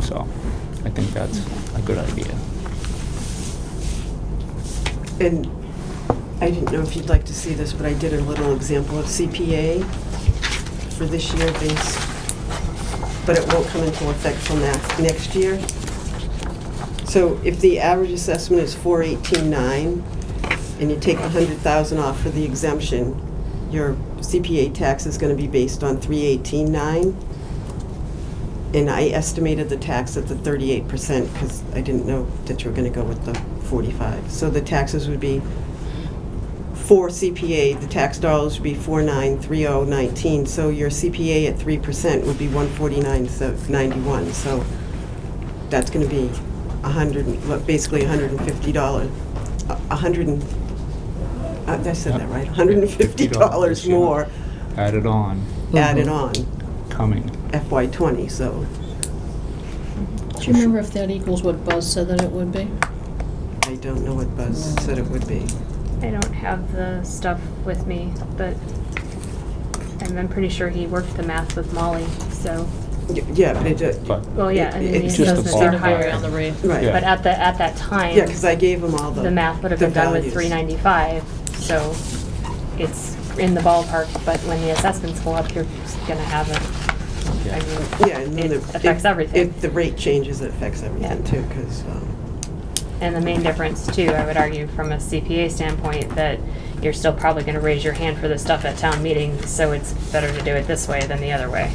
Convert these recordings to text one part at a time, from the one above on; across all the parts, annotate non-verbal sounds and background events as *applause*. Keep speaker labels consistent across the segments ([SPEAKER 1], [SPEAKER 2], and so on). [SPEAKER 1] So I think that's a good idea.
[SPEAKER 2] And I didn't know if you'd like to see this, but I did a little example of CPA for this year based, but it won't come into effect till next, next year. So if the average assessment is four eighteen nine, and you take the hundred thousand off for the exemption, your CPA tax is gonna be based on three eighteen nine. And I estimated the tax at the thirty-eight percent, because I didn't know that you were gonna go with the forty-five. So the taxes would be, for CPA, the tax dollars would be four nine three oh nineteen, so your CPA at three percent would be one forty-nine, so ninety-one, so that's gonna be a hundred, and- well, basically a hundred and fifty dollars, a hundred and, uh, did I said that right, a hundred and fifty dollars Mm-hmm.
[SPEAKER 1] Yeah.
[SPEAKER 2] more
[SPEAKER 1] Added on, Mm-hmm.
[SPEAKER 2] added on
[SPEAKER 1] coming.
[SPEAKER 2] FY twenty, so.
[SPEAKER 3] Do you remember if that equals what Buzz said that it would be?
[SPEAKER 2] I don't know what Buzz said it would be.
[SPEAKER 4] I don't have the stuff with me, but and I'm pretty sure he worked the math with Molly, so,
[SPEAKER 2] Y- Yeah, but it, uh,
[SPEAKER 1] But
[SPEAKER 4] well, yeah, I mean,
[SPEAKER 2] It-
[SPEAKER 4] the
[SPEAKER 2] it's just a
[SPEAKER 4] assessments
[SPEAKER 1] ballpark.
[SPEAKER 4] are
[SPEAKER 3] Doesn't vary on
[SPEAKER 4] higher.
[SPEAKER 3] the rate.
[SPEAKER 2] right,
[SPEAKER 4] But at the, at that time,
[SPEAKER 2] yeah, because I gave him all the.
[SPEAKER 4] the math would have been done with
[SPEAKER 2] values.
[SPEAKER 4] three ninety-five, so it's in the ballpark, but when the assessments go up, you're just gonna have it. I
[SPEAKER 1] Yeah.
[SPEAKER 4] mean,
[SPEAKER 2] Yeah, and then
[SPEAKER 4] It
[SPEAKER 2] the.
[SPEAKER 4] affects
[SPEAKER 2] if-
[SPEAKER 4] everything.
[SPEAKER 2] If the rate changes, it affects everything
[SPEAKER 4] Yeah.
[SPEAKER 2] too, um, because,
[SPEAKER 4] And the main difference too, I would argue from a CPA standpoint, that you're still probably gonna raise your hand for this stuff at town meeting, so it's better to do it this way than the other way.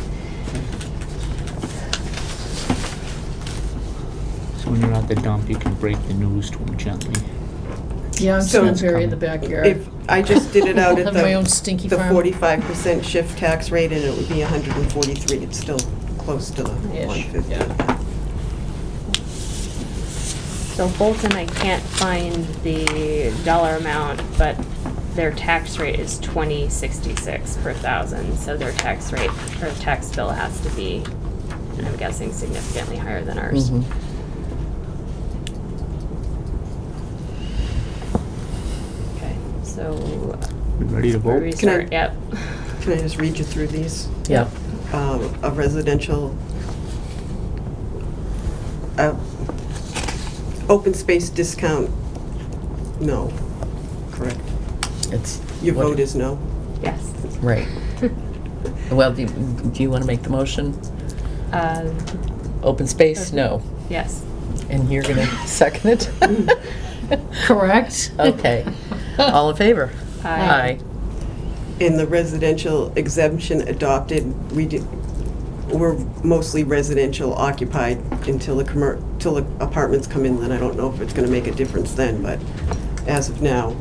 [SPEAKER 1] So when you're at the dump, you can break the news to them gently.
[SPEAKER 3] Yeah, I'm just
[SPEAKER 2] So-
[SPEAKER 3] gonna bury in the
[SPEAKER 2] if,
[SPEAKER 3] backyard.
[SPEAKER 2] I just did it out
[SPEAKER 3] *laughs* I'll
[SPEAKER 2] at the.
[SPEAKER 3] have my own stinky
[SPEAKER 2] The
[SPEAKER 3] farm.
[SPEAKER 2] forty-five percent shift tax rate, and it would be hundred and forty-three, it's still close to the
[SPEAKER 3] Ish,
[SPEAKER 2] one fifty.
[SPEAKER 3] yeah.
[SPEAKER 4] So Bolton, I can't find the dollar amount, but their tax rate is twenty sixty-six per thousand, so their tax rate, or tax bill has to be, and I'm guessing significantly higher than ours. Okay, so,
[SPEAKER 1] We Ready to
[SPEAKER 4] where do we
[SPEAKER 1] vote?
[SPEAKER 2] Can I-
[SPEAKER 4] start? Yep. *laughs*
[SPEAKER 2] Can I just read you through these?
[SPEAKER 3] Yeah.
[SPEAKER 2] um, a residential, uh, open space discount, no, correct?
[SPEAKER 5] It's.
[SPEAKER 2] Your
[SPEAKER 5] what-
[SPEAKER 2] vote is no?
[SPEAKER 4] Yes.
[SPEAKER 2] *laughs*
[SPEAKER 5] Right. Well, do, do you want to make the motion?
[SPEAKER 4] Uh,
[SPEAKER 5] Open space, no.
[SPEAKER 4] yes.
[SPEAKER 5] And you're going to second it?
[SPEAKER 3] Correct?
[SPEAKER 5] Okay. All in favor?
[SPEAKER 4] Aye.
[SPEAKER 2] In the residential exemption adopted, we did, we're mostly residential occupied until the commer, till the apartments come in, then I don't know if it's gonna make a difference then, but as of now,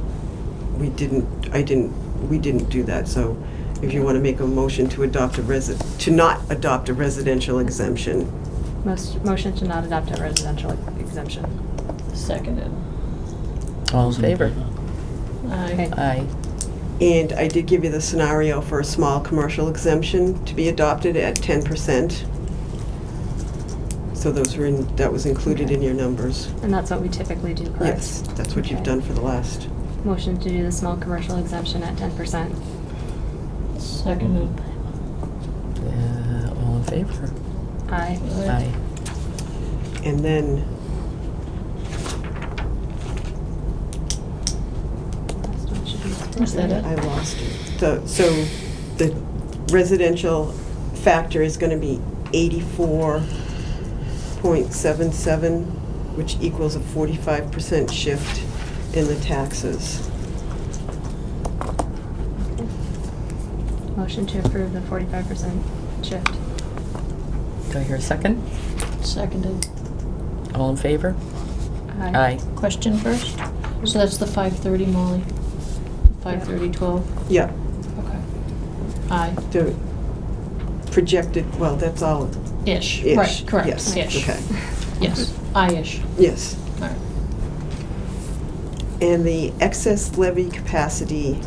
[SPEAKER 2] we didn't, I didn't, we didn't do that, so if you wanna make a motion to adopt a resi, to not adopt a residential exemption,
[SPEAKER 4] Most, motion to not adopt a residential exemption.
[SPEAKER 3] Seconded.
[SPEAKER 5] All in favor?
[SPEAKER 3] Aye.
[SPEAKER 5] Aye.
[SPEAKER 2] And I did give you the scenario for a small commercial exemption to be adopted at ten percent. So those were in, that was included in your numbers.
[SPEAKER 4] And that's what we typically do, correct?
[SPEAKER 2] Yes, that's what you've
[SPEAKER 4] Okay.
[SPEAKER 2] done for the last.
[SPEAKER 4] Motion to do the small commercial exemption at ten percent.
[SPEAKER 3] Seconded.
[SPEAKER 5] Uh, All in favor?
[SPEAKER 4] Aye.
[SPEAKER 5] Aye.
[SPEAKER 2] And then,
[SPEAKER 4] Last one should be-
[SPEAKER 3] Is that it?
[SPEAKER 2] I lost it. So, so the residential factor is gonna be eighty-four point seven seven, which equals a forty-five percent shift in the taxes.
[SPEAKER 4] Motion to approve the forty-five percent shift.
[SPEAKER 5] Do I hear a second?
[SPEAKER 3] Seconded.
[SPEAKER 5] All in favor? Aye.
[SPEAKER 3] Question first? So that's the five thirty, Molly? Five thirty, twelve?
[SPEAKER 2] Yeah,
[SPEAKER 3] Okay. Aye.
[SPEAKER 2] the projected, well, that's all
[SPEAKER 3] Ish.
[SPEAKER 2] Ish.
[SPEAKER 3] Right, correct.
[SPEAKER 2] Yes,
[SPEAKER 3] Ish.
[SPEAKER 2] okay.
[SPEAKER 3] Yes. Aye-ish.
[SPEAKER 2] Yes.
[SPEAKER 3] All right.
[SPEAKER 2] And the excess levy capacity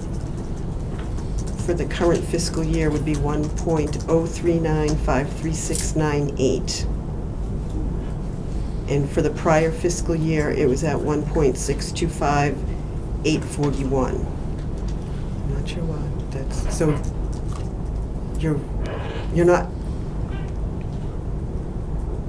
[SPEAKER 2] for the current fiscal year would be 1.0395369.8. And for the prior fiscal year, it was at 1.625841. I'm Not sure why, that's, so you're, you're not